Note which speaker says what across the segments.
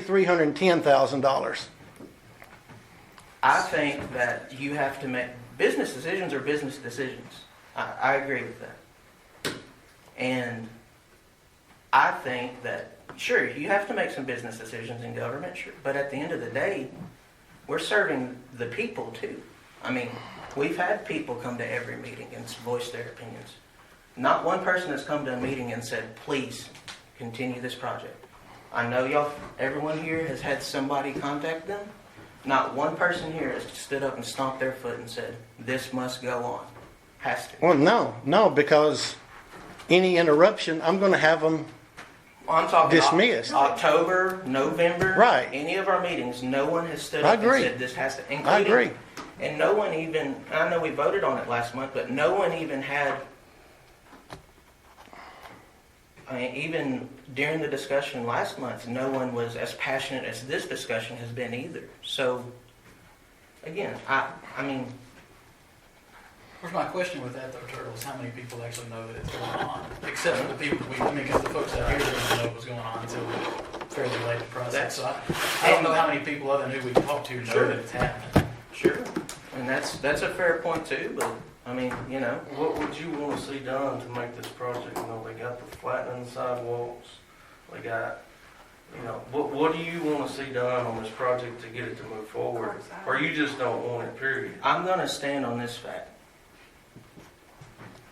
Speaker 1: three hundred and ten thousand dollars.
Speaker 2: I think that you have to make, business decisions are business decisions. I, I agree with that. And I think that, sure, you have to make some business decisions in government, sure, but at the end of the day, we're serving the people too. I mean, we've had people come to every meeting and voice their opinions. Not one person has come to a meeting and said, please, continue this project. I know y'all, everyone here has had somebody contact them. Not one person here has stood up and stomped their foot and said, this must go on. Has to.
Speaker 1: Well, no, no, because any interruption, I'm going to have them.
Speaker 2: I'm talking Oc-
Speaker 1: Dismissed.
Speaker 2: October, November.
Speaker 1: Right.
Speaker 2: Any of our meetings, no one has stood
Speaker 1: I
Speaker 2: up and
Speaker 1: agree.
Speaker 2: said this has to.
Speaker 1: I
Speaker 2: including-
Speaker 1: agree.
Speaker 2: And no one even, I know we voted on it last month, but no one even had, I mean, even during the discussion last month, no one was as passionate as this discussion has been either. So, again, I, I mean,
Speaker 3: Where's my question with that though, Turtles? How many people actually know that it's going on? Except for the people we, I mean, because the folks out here didn't know what was going on until fairly late in the process. So I, I don't know how many people other than who we talked to know
Speaker 2: Sure.
Speaker 3: that it's happening.
Speaker 2: sure, and that's, that's a fair point too, but, I mean, you know,
Speaker 4: What would you want to see done to make this project, you know, they got the flattening sidewalks, they got, you know, what, what do you want to see done on this project to get it to move forward? Or you just don't want it, period?
Speaker 2: I'm gonna stand on this fact.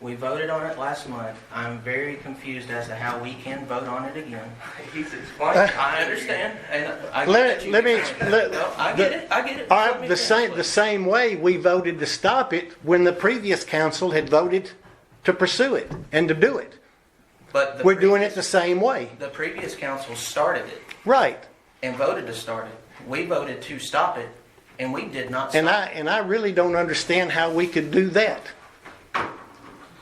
Speaker 2: We voted on it last month. I'm very confused as to how we can vote on it again.
Speaker 4: He's explaining.
Speaker 2: I understand, and I get
Speaker 1: Let-
Speaker 2: that you-
Speaker 1: let me exp- let-
Speaker 2: No, I get it, I get it.
Speaker 1: All
Speaker 2: Let me
Speaker 1: right, the same, the
Speaker 2: finish,
Speaker 1: same way we voted to stop it when the previous council had voted to pursue it and to do it.
Speaker 2: please. But the
Speaker 1: We're doing it
Speaker 2: previous-
Speaker 1: the same way.
Speaker 2: The previous council started it
Speaker 1: Right.
Speaker 2: and voted to start it. We voted to stop it, and we did not
Speaker 1: And
Speaker 2: stop.
Speaker 1: I, and I really don't understand how we could do that,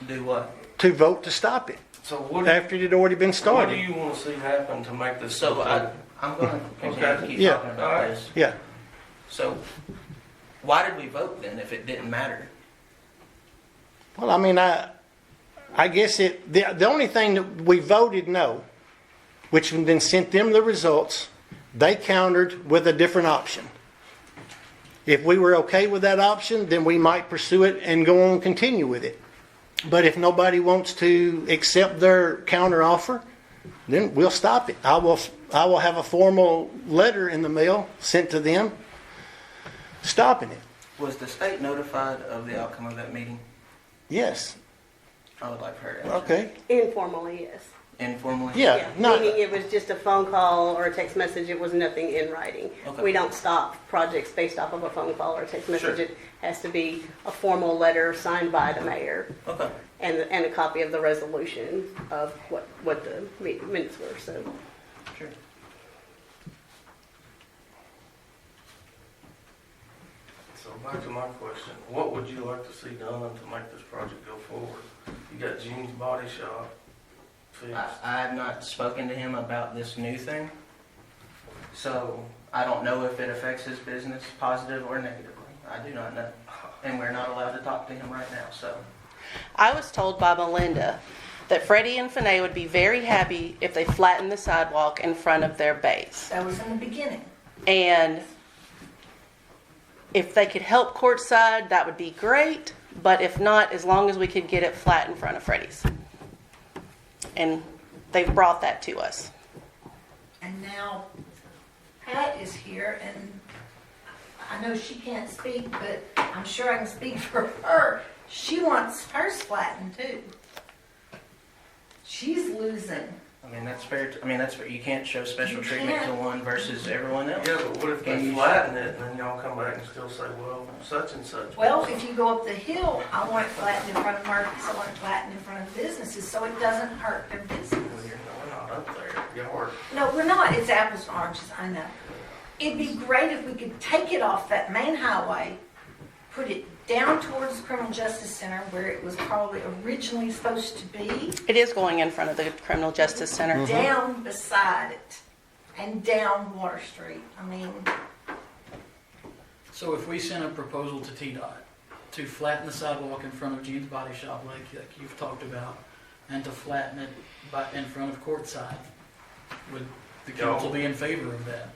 Speaker 2: Do what?
Speaker 1: to vote to stop it,
Speaker 4: So what, do-
Speaker 1: after it had already been
Speaker 4: what do
Speaker 1: started.
Speaker 4: you want to see happen to make this?
Speaker 2: So uh, I, I'm gonna continue to
Speaker 4: Okay.
Speaker 2: keep
Speaker 1: Yeah.
Speaker 2: talking about this.
Speaker 1: Yeah.
Speaker 2: So, why did we vote then if it didn't matter?
Speaker 1: Well, I mean, I, I guess it, the, the only thing that we voted no, which then sent them the results, they countered with a different option. If we were okay with that option, then we might pursue it and go on continue with it. But if nobody wants to accept their counter offer, then we'll stop it. I will, I will have a formal letter in the mail sent to them stopping it.
Speaker 2: Was the state notified of the outcome of that meeting?
Speaker 1: Yes,
Speaker 2: I would like her to answer.
Speaker 1: okay,
Speaker 5: Informally, yes.
Speaker 2: Informally?
Speaker 1: yeah, no.
Speaker 5: Meaning it was just a phone call or a text message, it was nothing in writing.
Speaker 2: Okay.
Speaker 5: We don't stop projects based off of a phone call or a text message.
Speaker 2: Sure.
Speaker 5: It has to be a formal letter signed by the mayor
Speaker 2: Okay.
Speaker 5: and, and a copy of the resolution of what, what the mi- minutes were, so.
Speaker 2: Sure.
Speaker 4: So back to my question, what would you like to see done to make this project go forward? You got Gene's Body Shop
Speaker 2: I,
Speaker 4: fixed.
Speaker 2: I have not spoken to him about this new thing, so I don't know if it affects his business positive or negatively. I do not know, and we're not allowed to talk to him right now, so.
Speaker 6: I was told by Melinda that Freddie and Finay would be very happy if they flattened the sidewalk in front of their base.
Speaker 7: That was in the beginning.
Speaker 6: And if they could help courtside, that would be great. But if not, as long as we could get it flat in front of Freddie's. And they've brought that to us.
Speaker 7: And now Pat is here and I know she can't speak, but I'm sure I can speak for her. She wants hers flattened too. She's losing.
Speaker 2: I mean, that's fair, t- I mean, that's, fair. you can't show special
Speaker 7: You
Speaker 2: treatment to
Speaker 7: can't.
Speaker 2: one versus everyone else.
Speaker 4: Yeah, but what if
Speaker 2: Can
Speaker 4: they
Speaker 2: you-
Speaker 4: flatten it and then y'all come back and still say, well, such and such.
Speaker 7: Well, if you go up the hill, I want it flattened in front of Murphy's, I want it flattened in front of businesses, so it doesn't hurt their
Speaker 4: Well,
Speaker 7: business.
Speaker 4: you're not up there, y'all are
Speaker 7: No, we're not, it's apples and oranges, I know. It'd be great if we could take it off that main highway, put it down towards the Criminal Justice Center where it was probably originally supposed to be,
Speaker 6: It is going in front of the Criminal Justice
Speaker 7: Mm-hmm.
Speaker 6: Center.
Speaker 7: down beside it, and down Water Street. I mean,
Speaker 3: So if we sent a proposal to TDOT to flatten the sidewalk in front of Gene's Body Shop like, like you've talked about, and to flatten it by, in front of Courtside, would the council be in favor of that?